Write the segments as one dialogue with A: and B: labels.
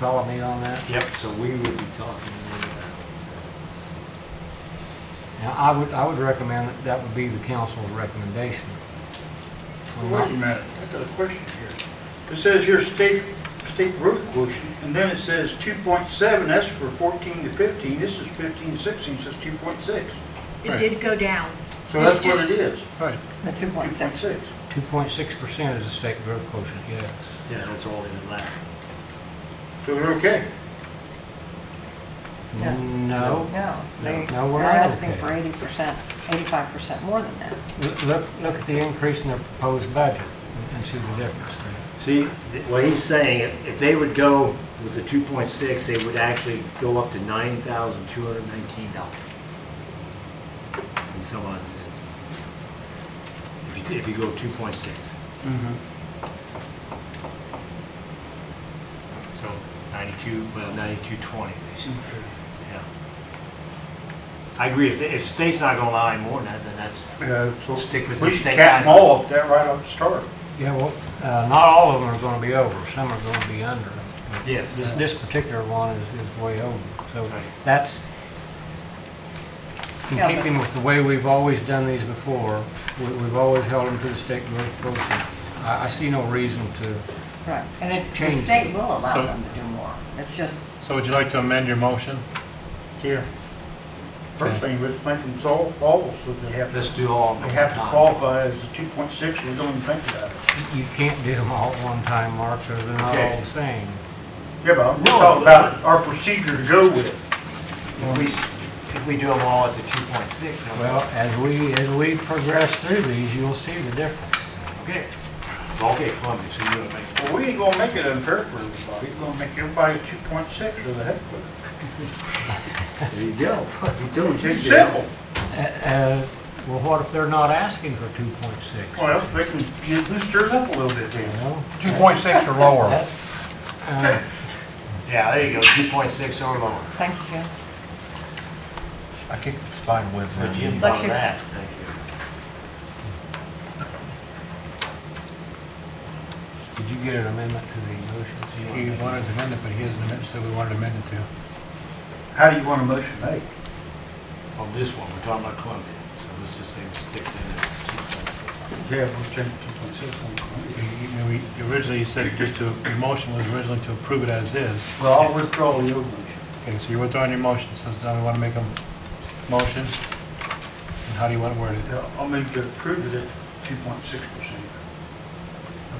A: follow me on that?
B: Yep.
A: So we would be talking to them about it. Now, I would, I would recommend that that would be the council's recommendation.
B: Wait a minute, I got a question here. It says your state, state road quotient, and then it says 2.7, that's for 14 to 15, this is 15 to 16, says 2.6.
C: It did go down.
B: So
C: It's
B: that's what
C: just-
B: it is,
D: Right.
E: The two point six.
B: 2.6.
A: Two point six percent is the state growth quotient, yes.
B: Yeah, that's all in that. So we're okay?
E: No.
A: No,
E: No, they,
A: No,
E: they're
A: we're not
E: asking
A: okay.
E: for eighty percent, eighty-five percent more than that.
A: L- look, look at the increase in their proposed budget and- and see the difference there.
F: See, th- what he's saying, if- if they would go with the 2.6, they would actually go up to $9,219 in some odd sense. If you, if you go 2.6.
B: Mm-hmm.
F: So 92, well, 9220, basically, yeah. I agree, if, the- if state's not gonna allow any more than that, then that's,
B: Yeah,
F: Stick with
B: Uh, so we
F: the
B: should
F: state
B: cap them
F: guideline.
B: all if that right off the start.
A: Yeah, well, uh, not all of them are going to be over, some are going to be under. But
F: Yes. uh,
A: This, this particular one is, is way over, so
F: That's right.
A: that's, in
E: Yeah, but-
A: keeping with the way we've always done these before, we, we've always held them to the state growth quotient. I, I see no reason to,
E: Right, and it, the
A: Change.
E: state will allow
D: So-
E: them to do more. It's just,
D: So would you like to amend your motion?
B: Yeah. First thing, let's make them all, all so they have,
F: let's do all.
B: they have to qualify as the 2.6, we don't even think about it.
A: you can't do them all at one time, Mark, so they're not all
B: Okay.
A: the same.
B: Yeah, but we're
F: No.
B: talking about our procedure to go with.
F: If we, s- if we do them all at the 2.6, then we're
A: Well, as we, as we progress through these, you'll see the difference.
F: okay. Okay, Columbia, so you're gonna make,
B: Well, we ain't gonna make it unfair for everybody, we're gonna make everybody two point six or the heck with
F: there you go. You told
B: it.
F: you.
B: It's simple.
A: Uh, uh, Well, what if they're not asking for 2.6?
B: Well, they can get boosters up a little bit
A: You
B: then.
A: know?
D: Two point six or lower.
A: That- uh,
F: Yeah, there you go, 2.6 or lower.
E: thank you.
D: I kicked the spine with
F: So Jim
E: Bless
F: thought of
E: you.
F: that, thank you.
A: Did you get an amendment to the motion?
D: He wanted to amend it, but he hasn't amended, so we wanted to amend it to.
B: How do you want a motion made?
F: On this one, we're talking about Columbia, so let's just say we stick to the
B: Yeah, we'll change two point six on Columbia.
D: You- you- you Originally, you said just to, your motion was originally to approve it as is.
B: Well, I'll withdraw the old motion.
D: Okay, so you're withdrawing your motion, so now we want to make a motion. And how do you want to word it?
B: Yeah, I'll move to approve it at two point six percent.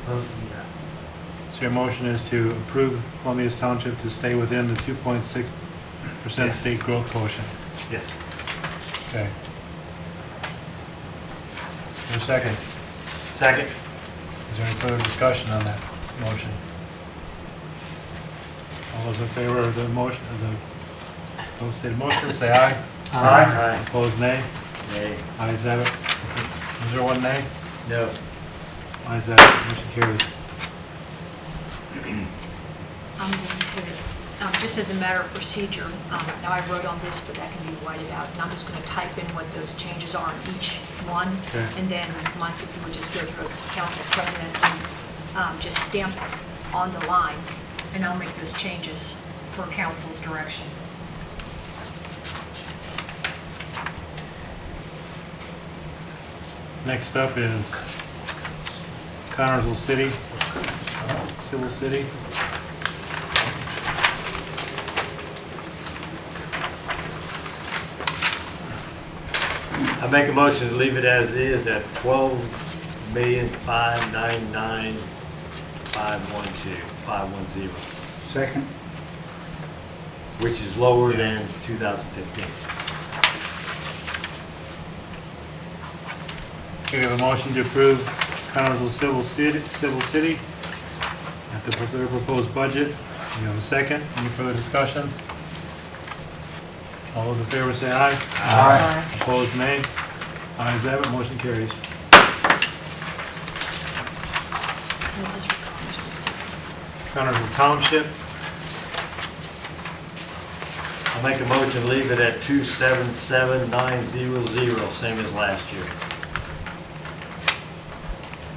B: Above the, uh,
D: So your motion is to approve Columbia's Township to stay within the two point six percent state growth quotient.
F: 2.6. Yes.
D: Okay. Is there a second?
F: Second?
D: Is there any further discussion on that motion? All those in favor of the motion, of the, those stated motion, say aye.
B: Aye.
D: Opposed, nay.
F: Nay.
D: Ayes have it. Is there one nay?
F: No.
D: Ayes have it. Motion carries.
C: I'm going to, um, just as a matter of procedure, um, now I wrote on this, but that can be whited out, and I'm just going to type in what those changes are on each one.
D: Okay.
C: And then, Mike, if you would just go through as council president and um, just stamp on the line, and I'll make those changes per council's direction.
D: Next up is Connersville City, Civil City.
F: I make a motion to leave it as is at 12,599,512, 510,
B: second.
F: which is lower than 2015.
D: Okay, we have a motion to approve Connersville Civil City, Civil City at the pro- their proposed budget. You have a second? Any further discussion? All those in favor say aye.
E: Aye.
D: Opposed, nay. Ayes have it, motion carries.
C: This is for council.
D: Connersville Township,
F: I make a motion to leave it at 277,900, same as last year.